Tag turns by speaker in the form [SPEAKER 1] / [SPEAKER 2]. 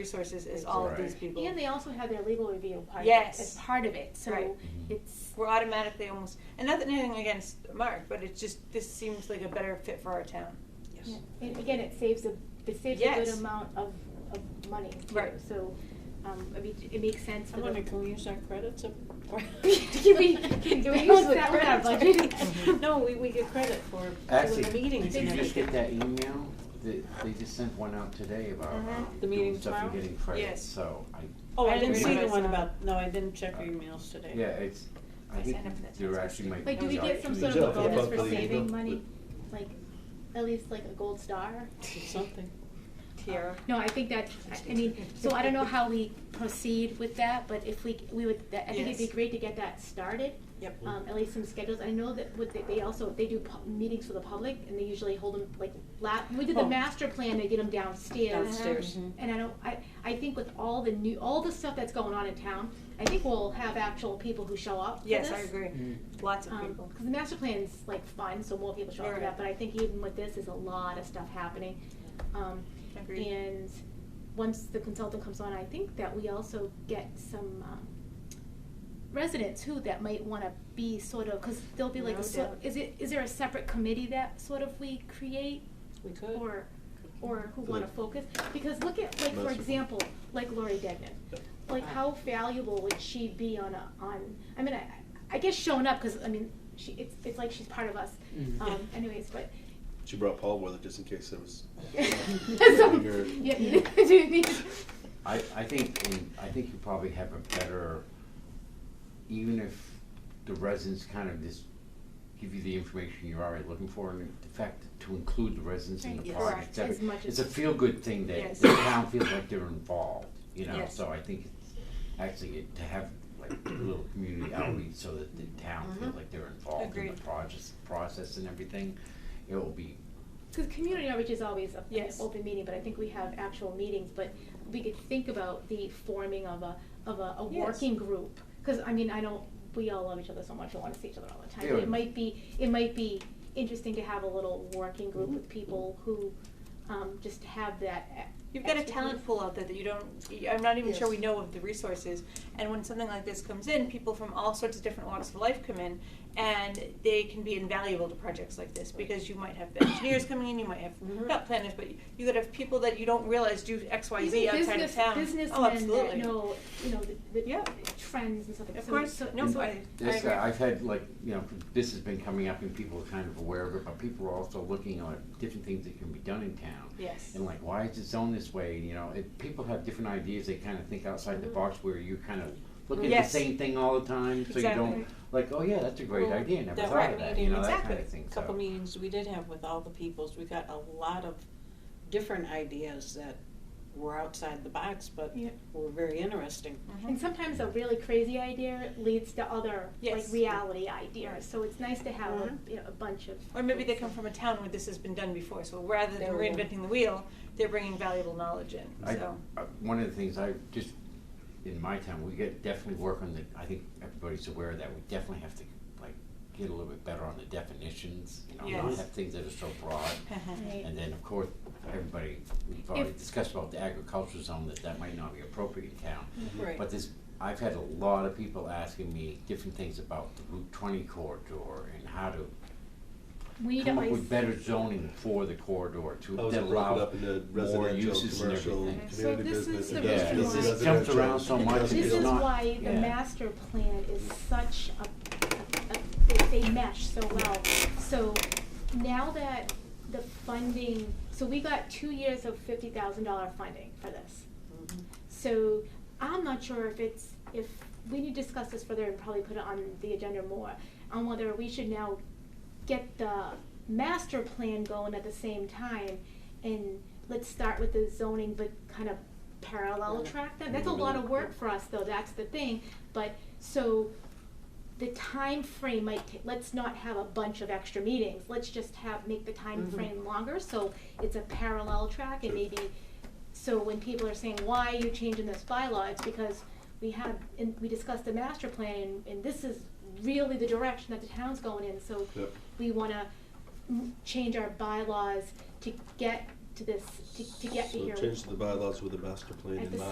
[SPEAKER 1] resources is all of these
[SPEAKER 2] Right.
[SPEAKER 1] people.
[SPEAKER 3] And they also have their legal review part
[SPEAKER 1] Yes.
[SPEAKER 3] as part of it. So
[SPEAKER 1] Right.
[SPEAKER 3] it's
[SPEAKER 1] We're automatically almost, and nothing anything against Mark, but it's just, this seems like a better fit for our town.
[SPEAKER 3] yeah. and again it saves a it saves a
[SPEAKER 1] Yes.
[SPEAKER 3] good amount of, of money. too.
[SPEAKER 1] Right.
[SPEAKER 3] So um, I mean it makes sense for
[SPEAKER 4] I wonder,
[SPEAKER 3] them.
[SPEAKER 4] can we use our credits? up-
[SPEAKER 3] Can we- can we use that one on budget?
[SPEAKER 4] No, we, we get credit for
[SPEAKER 5] Actually,
[SPEAKER 4] doing the meetings.
[SPEAKER 5] Did you
[SPEAKER 4] and
[SPEAKER 5] just get
[SPEAKER 4] everything.
[SPEAKER 5] that email? They, they just sent one out today about
[SPEAKER 1] Mhm.
[SPEAKER 3] Mm-hmm.
[SPEAKER 5] um,
[SPEAKER 4] The
[SPEAKER 5] doing
[SPEAKER 4] meeting
[SPEAKER 5] stuff and
[SPEAKER 4] tomorrow?
[SPEAKER 5] getting credit,
[SPEAKER 1] Yes.
[SPEAKER 5] so I,
[SPEAKER 4] Oh, I didn't
[SPEAKER 1] I
[SPEAKER 4] see
[SPEAKER 1] didn't
[SPEAKER 4] the one
[SPEAKER 3] realize
[SPEAKER 4] about, no, I didn't check our emails today.
[SPEAKER 5] yeah, it's, I
[SPEAKER 1] I
[SPEAKER 5] think
[SPEAKER 1] signed up for that
[SPEAKER 5] there
[SPEAKER 1] task
[SPEAKER 5] actually might be.
[SPEAKER 3] Like do we get some
[SPEAKER 5] options.
[SPEAKER 3] sort of a
[SPEAKER 6] Yeah.
[SPEAKER 3] bonus for
[SPEAKER 6] Yeah.
[SPEAKER 3] saving
[SPEAKER 6] Yeah.
[SPEAKER 3] money? Like at least like a gold star? Uh,
[SPEAKER 4] It's Something.
[SPEAKER 1] Tiara.
[SPEAKER 3] No, I think that, I- I mean, so I don't know how we proceed with that, but if we, we would, I think it'd be
[SPEAKER 1] Yes.
[SPEAKER 3] great to get that started.
[SPEAKER 4] Yep.
[SPEAKER 3] Um, at least some schedules, I know that what they, they also, they do pu- meetings for the public, and they usually hold them like la, we did the
[SPEAKER 4] Oh.
[SPEAKER 3] master plan, they did them downstairs.
[SPEAKER 4] Downstairs. Mhm.
[SPEAKER 3] And I don't, I, I think with all the new, all the stuff that's going on in town, I think we'll have actual people who show up for this.
[SPEAKER 1] Yes, I agree. Lots of
[SPEAKER 3] Um,
[SPEAKER 1] people.
[SPEAKER 3] 'cause the master plan's like fun, so more people show up for
[SPEAKER 1] Right.
[SPEAKER 3] that, but I think even with this, there's a lot of stuff happening. Um,
[SPEAKER 1] Agreed.
[SPEAKER 3] And once the consultant comes on, I think that we also get some, um, residents who that might wanna be sort of, cause there'll be like
[SPEAKER 1] No
[SPEAKER 3] a sort,
[SPEAKER 1] doubt.
[SPEAKER 3] is it, is there a separate committee that sort of we create?
[SPEAKER 4] We could.
[SPEAKER 3] Or, or who
[SPEAKER 6] For
[SPEAKER 3] wanna
[SPEAKER 6] the-
[SPEAKER 3] focus, because look at, like, for
[SPEAKER 6] Master plan.
[SPEAKER 3] example, like Lori Degnan, like how valuable would she be on a on i mean i, I guess showing up because i mean she it's, it's like she's part of us um, anyways but
[SPEAKER 6] She brought Paul with her just in case there was.
[SPEAKER 3] so, yeah, do you need-
[SPEAKER 5] I, I think, and I think you probably have a better, even if the residents kind of just give you the information you're already looking for, and the fact to include the residents in
[SPEAKER 3] Right,
[SPEAKER 5] the
[SPEAKER 1] yes.
[SPEAKER 5] project,
[SPEAKER 1] Correct.
[SPEAKER 5] that-
[SPEAKER 3] As much
[SPEAKER 5] it's a
[SPEAKER 3] as-
[SPEAKER 5] feel-good thing that
[SPEAKER 1] Yes.
[SPEAKER 5] the town feels like they're involved, you know,
[SPEAKER 1] Yes.
[SPEAKER 5] so I think it's actually it- to have like a little community outreach so that the town feels like they're involved in the
[SPEAKER 1] Agreed.
[SPEAKER 5] project, process and everything, it will be,
[SPEAKER 3] Because community outreach is always a,
[SPEAKER 1] Yes.
[SPEAKER 3] an open meeting, but I think we have actual meetings. But we could think about the forming of a of a, a
[SPEAKER 1] Yes.
[SPEAKER 3] working group. Because I mean, I don't. We all love each other so much. We want to see each other all the time. But
[SPEAKER 5] Yeah.
[SPEAKER 3] it might be it might be interesting to have a little working group with people who um, just have that. e-
[SPEAKER 1] You've got a
[SPEAKER 3] expertise.
[SPEAKER 1] talent pool out there that you don't, I'm not even sure
[SPEAKER 4] Yes.
[SPEAKER 1] we know of the resources. And when something like this comes in, people from all sorts of different walks of life come in, and they can be invaluable to projects like this because you might have engineers coming in, you might have
[SPEAKER 3] Mm-hmm.
[SPEAKER 4] Mhm.
[SPEAKER 1] not planners, but you could have people that you don't realize do X, Y, Z
[SPEAKER 3] Even
[SPEAKER 1] outside of
[SPEAKER 3] business-
[SPEAKER 1] town.
[SPEAKER 3] Businessmen
[SPEAKER 1] oh, absolutely.
[SPEAKER 3] that know you know the, the
[SPEAKER 1] Yeah.
[SPEAKER 3] trends and stuff like
[SPEAKER 1] Of
[SPEAKER 3] so-
[SPEAKER 1] course,
[SPEAKER 3] So,
[SPEAKER 1] no,
[SPEAKER 3] so-
[SPEAKER 1] I, I
[SPEAKER 5] This,
[SPEAKER 1] agree.
[SPEAKER 5] uh, I've had like, you know, this has been coming up and people are kind of aware of it, but people are also looking at different things that can be done in town.
[SPEAKER 1] Yes.
[SPEAKER 5] And like, why is it zoned this way, you know, it, people have different ideas, they kind of think outside the box where you kind of look at the
[SPEAKER 1] Mm-hmm. Yes.
[SPEAKER 5] same thing all the time, so you
[SPEAKER 1] Exactly.
[SPEAKER 5] don't, like, oh yeah, that's a great
[SPEAKER 4] Well,
[SPEAKER 5] idea, never
[SPEAKER 4] that
[SPEAKER 5] thought
[SPEAKER 4] one
[SPEAKER 5] of that,
[SPEAKER 4] meeting-
[SPEAKER 5] you know, that
[SPEAKER 1] Exactly.
[SPEAKER 5] kind of thing, so.
[SPEAKER 4] Couple meetings we did have with all the peoples, we got a lot of different ideas that were outside the box, but
[SPEAKER 1] Yeah.
[SPEAKER 4] were very interesting.
[SPEAKER 1] Uh-huh. Mm-hmm.
[SPEAKER 3] And sometimes a really crazy idea leads to other
[SPEAKER 1] Yes. Uh-huh.
[SPEAKER 3] like reality ideas. So it's nice to have
[SPEAKER 4] Mhm.
[SPEAKER 3] a, you know, a bunch of.
[SPEAKER 1] Or maybe they come from a town where this has been done before, so rather than
[SPEAKER 4] There we go.
[SPEAKER 1] reinventing the wheel, they're bringing valuable knowledge in,
[SPEAKER 5] I,
[SPEAKER 1] so.
[SPEAKER 5] uh, one of the things I just, in my town, we get, definitely work on the, I think everybody's aware of that, we definitely have to, like, get a little bit better on the definitions, you know, not
[SPEAKER 1] Yes.
[SPEAKER 5] have things that are so broad.
[SPEAKER 3] Right.
[SPEAKER 5] And then, of course, everybody, we've already discussed about the agricultural zone, that that might not be appropriate in town.
[SPEAKER 4] Right.
[SPEAKER 5] But this, I've had a lot of people asking me different things about the Route twenty corridor and how to
[SPEAKER 3] We need
[SPEAKER 5] come up
[SPEAKER 3] always-
[SPEAKER 5] with better zoning for the corridor to,
[SPEAKER 6] I was
[SPEAKER 5] that
[SPEAKER 6] broken
[SPEAKER 5] allow
[SPEAKER 6] up into
[SPEAKER 5] more
[SPEAKER 6] residential,
[SPEAKER 5] uses and
[SPEAKER 6] commercial,
[SPEAKER 5] everything.
[SPEAKER 6] community
[SPEAKER 3] So this is
[SPEAKER 6] business,
[SPEAKER 3] the
[SPEAKER 6] industrial.
[SPEAKER 5] reason
[SPEAKER 6] This is
[SPEAKER 5] why- It jumps around so
[SPEAKER 6] residential.
[SPEAKER 5] much,
[SPEAKER 3] This
[SPEAKER 5] It's
[SPEAKER 3] is
[SPEAKER 5] not-
[SPEAKER 3] why the
[SPEAKER 5] yeah.
[SPEAKER 3] master plan is such a, a, a they, they mesh so well. So now that the funding, so we got two years of fifty thousand dollar funding for this.
[SPEAKER 4] Mhm.
[SPEAKER 3] So I'm not sure if it's, if, we need to discuss this further and probably put it on the agenda more, on whether we should now get the master plan going at the same time and let's start with the zoning, but kind of parallel track that. That's a lot of work for us though, that's the thing, but, so the time frame might, ta- let's not have a bunch of extra meetings, let's just have, make the time
[SPEAKER 4] Mhm.
[SPEAKER 3] frame longer, so it's a parallel track and
[SPEAKER 6] Sure.
[SPEAKER 3] maybe so when people are saying, why are you changing this bylaw, it's because we had, and we discussed the master plan, and, and this is really the direction that the town's going in, so
[SPEAKER 6] Yep.
[SPEAKER 3] we wanna m- change our bylaws to get
[SPEAKER 6] to this, to, to get to
[SPEAKER 3] So
[SPEAKER 6] here.
[SPEAKER 3] change the bylaws with the master plan
[SPEAKER 6] At
[SPEAKER 3] in
[SPEAKER 6] the
[SPEAKER 3] mind.